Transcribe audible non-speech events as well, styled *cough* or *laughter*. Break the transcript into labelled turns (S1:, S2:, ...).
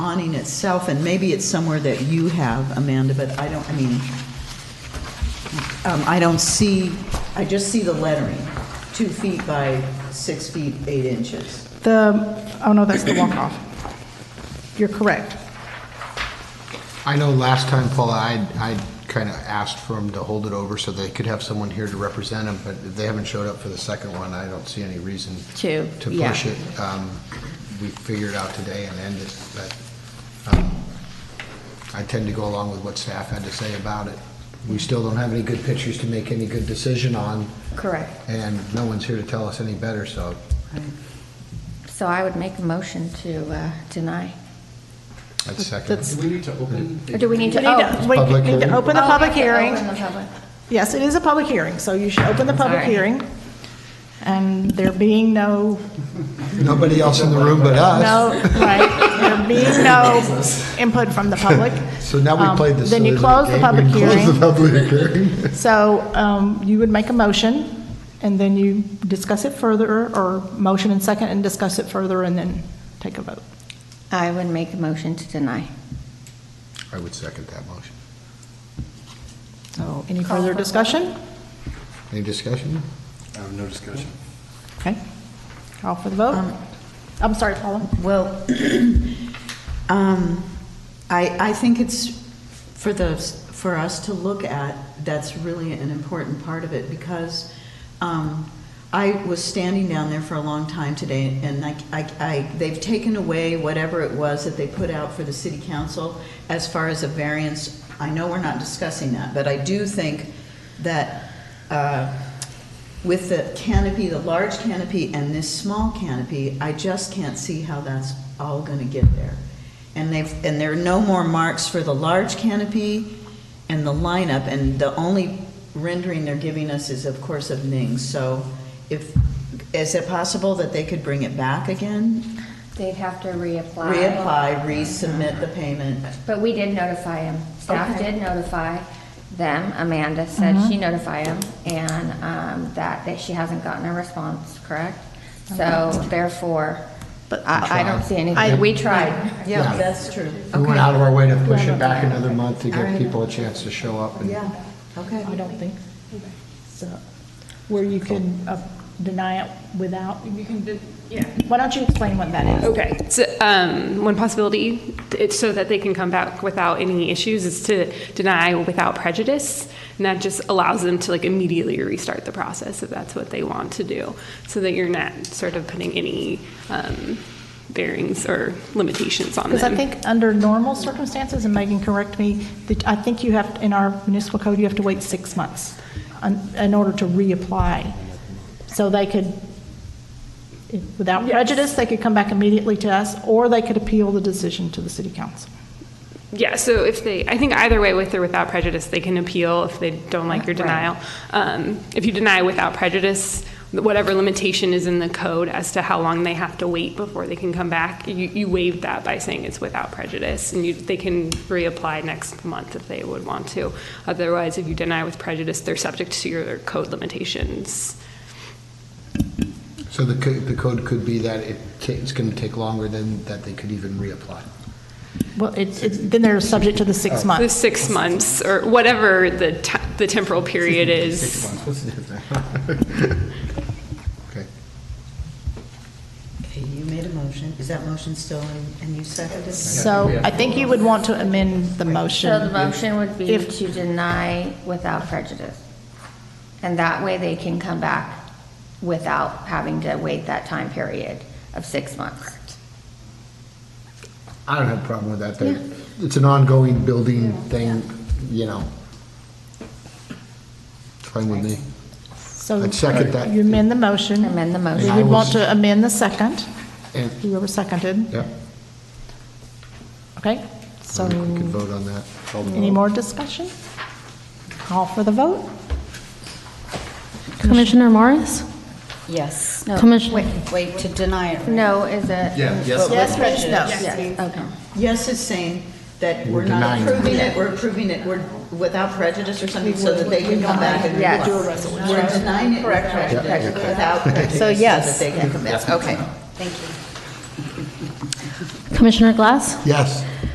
S1: awning itself, and maybe it's somewhere that you have, Amanda, but I don't, I mean, um, I don't see, I just see the lettering, two feet by six feet, eight inches.
S2: The, oh no, that's the walk-off. You're correct.
S3: I know last time, Paula, I, I kind of asked for them to hold it over so they could have someone here to represent them, but if they haven't showed up for the second one, I don't see any reason
S4: To,
S3: to
S4: yeah.
S3: push it. Um, We figured out today and ended, it, but um, I tend to go along with what staff had to say about it. We still don't have any good pictures to make any good decision on,
S4: Correct.
S3: and no one's here to tell us any better, so
S4: So I would make a motion to uh, deny.
S3: I'd second.
S5: Do we need to open?
S4: Or do we need to,
S2: We need to-
S4: oh.
S2: we
S3: Public
S2: need
S3: hearing.
S2: to open the
S4: oh,
S2: public
S4: we have to
S2: hearing.
S4: open the public.
S2: Yes, it is a public hearing, so you should open the public
S4: Sorry.
S2: hearing. And there being
S3: *laughs*
S2: no,
S3: Nobody else in the room but us.
S2: no, right, there being no input from the public.
S3: So now we
S2: um,
S3: played this.
S2: Then you
S3: silly
S2: close the
S3: little
S2: public
S3: game. We
S2: hearing.
S3: *laughs* Close the public hearing.
S2: So um, you would make a motion, and then you discuss it further, or motion and second, and discuss it further, and then take a vote.
S4: I would make a motion to deny.
S3: I would second that motion.
S2: So any
S4: Call
S2: further
S4: for the vote.
S2: discussion?
S3: Any discussion?
S5: I have no discussion.
S2: Okay. Call for the vote. Um, I'm sorry, Paula.
S1: Well, *clears throat* um, I, I think it's for the, for us to look at, that's really an important part of it, because um, I was standing down there for a long time today, and I, I- I, they've taken away whatever it was that they put out for the city council as far as a variance. I know we're not discussing that, but I do think that uh, with the canopy, the large canopy and this small canopy, I just can't see how that's all gonna get there. And they've, and there are no more marks for the large canopy and the lineup, and the only rendering they're giving us is, of course, of Ning's, so if, is it possible that they could bring it back again?
S4: They'd have to reapply.
S1: Reapply, resubmit the payment?
S4: But we did notify him. Staff
S1: Okay.
S4: did notify them. Amanda said she notified him and um, that, that she hasn't gotten a response, correct? So therefore, I, I don't see anything. We tried.
S1: Yeah, that's true.
S3: We went out of our way to push it back another month to give people a chance to show up and
S1: Yeah, okay.
S2: I don't think so. Where you can uh, deny it without,
S6: You can, do- yeah. Oh.
S2: why don't you explain what that is?
S6: Okay, so, um, one possibility, it's so that they can come back without any issues, is to deny without prejudice. And that just allows them to like immediately restart the process if that's what they want to do. So that you're not sort of putting any, um, bearings or limitations on
S2: Because
S6: them.
S2: I think under normal circumstances, and Megan, correct me, that I think you have, in our municipal code, you have to wait six months on- in order to reapply. So they could, without
S6: Yes.
S2: prejudice, they could come back immediately to us, or they could appeal the decision to the city council.
S6: Yeah, so if they, I think either way, with or without prejudice, they can appeal if they don't like your denial. Um, If you deny without prejudice, whatever limitation is in the code as to how long they have to wait before they can come back, you, you waive that by saying it's without prejudice, and you, they can reapply next month if they would want to. Otherwise, if you deny with prejudice, they're subject to your code limitations.
S3: So the co- the code could be that it ta- it's going to take longer than, that they could even reapply.
S2: Well, it's, it's- then they're subject to the six
S6: Oh. The
S2: months.
S6: six months, or whatever the, te- the temporal period is.
S3: What's the difference? Okay.
S1: Okay, you made a motion, is that motion still, in- and you seconded it?
S2: So I think you would want to amend the motion.
S4: So the motion would be
S2: If-
S4: to deny without prejudice. And that way they can come back without having to wait that time period of six months.
S3: I don't have a problem with that. They- It's an ongoing building thing, you know. It's Fine with me.
S2: So
S3: I'd second that.
S2: You amend the motion.
S4: Amend the motion.
S2: You
S3: I
S2: would
S3: will
S2: want
S3: s-
S2: to amend the second,
S3: And,
S2: whoever seconded,
S3: yeah,
S2: okay?
S3: I
S2: So,
S3: think we could vote on that.
S2: any more discussion? Call for the vote?
S7: Commissioner Morris?
S8: Yes.
S4: No,
S7: Commissioner-
S8: Wait, wait, to deny it.
S4: No, is it?
S2: Yes, means no.
S4: Yes, okay.
S1: Yes is saying that
S3: We're
S1: we're not
S3: denying it.
S1: approving it, we're approving it, we're without prejudice or something, so that they can come back and.
S4: Yes.
S1: do a resolution. We're denying it without prejudice, without prejudice, so that
S8: yes.
S1: they can come back. Okay.
S8: Thank you.
S7: Commissioner Glass?
S3: Yes.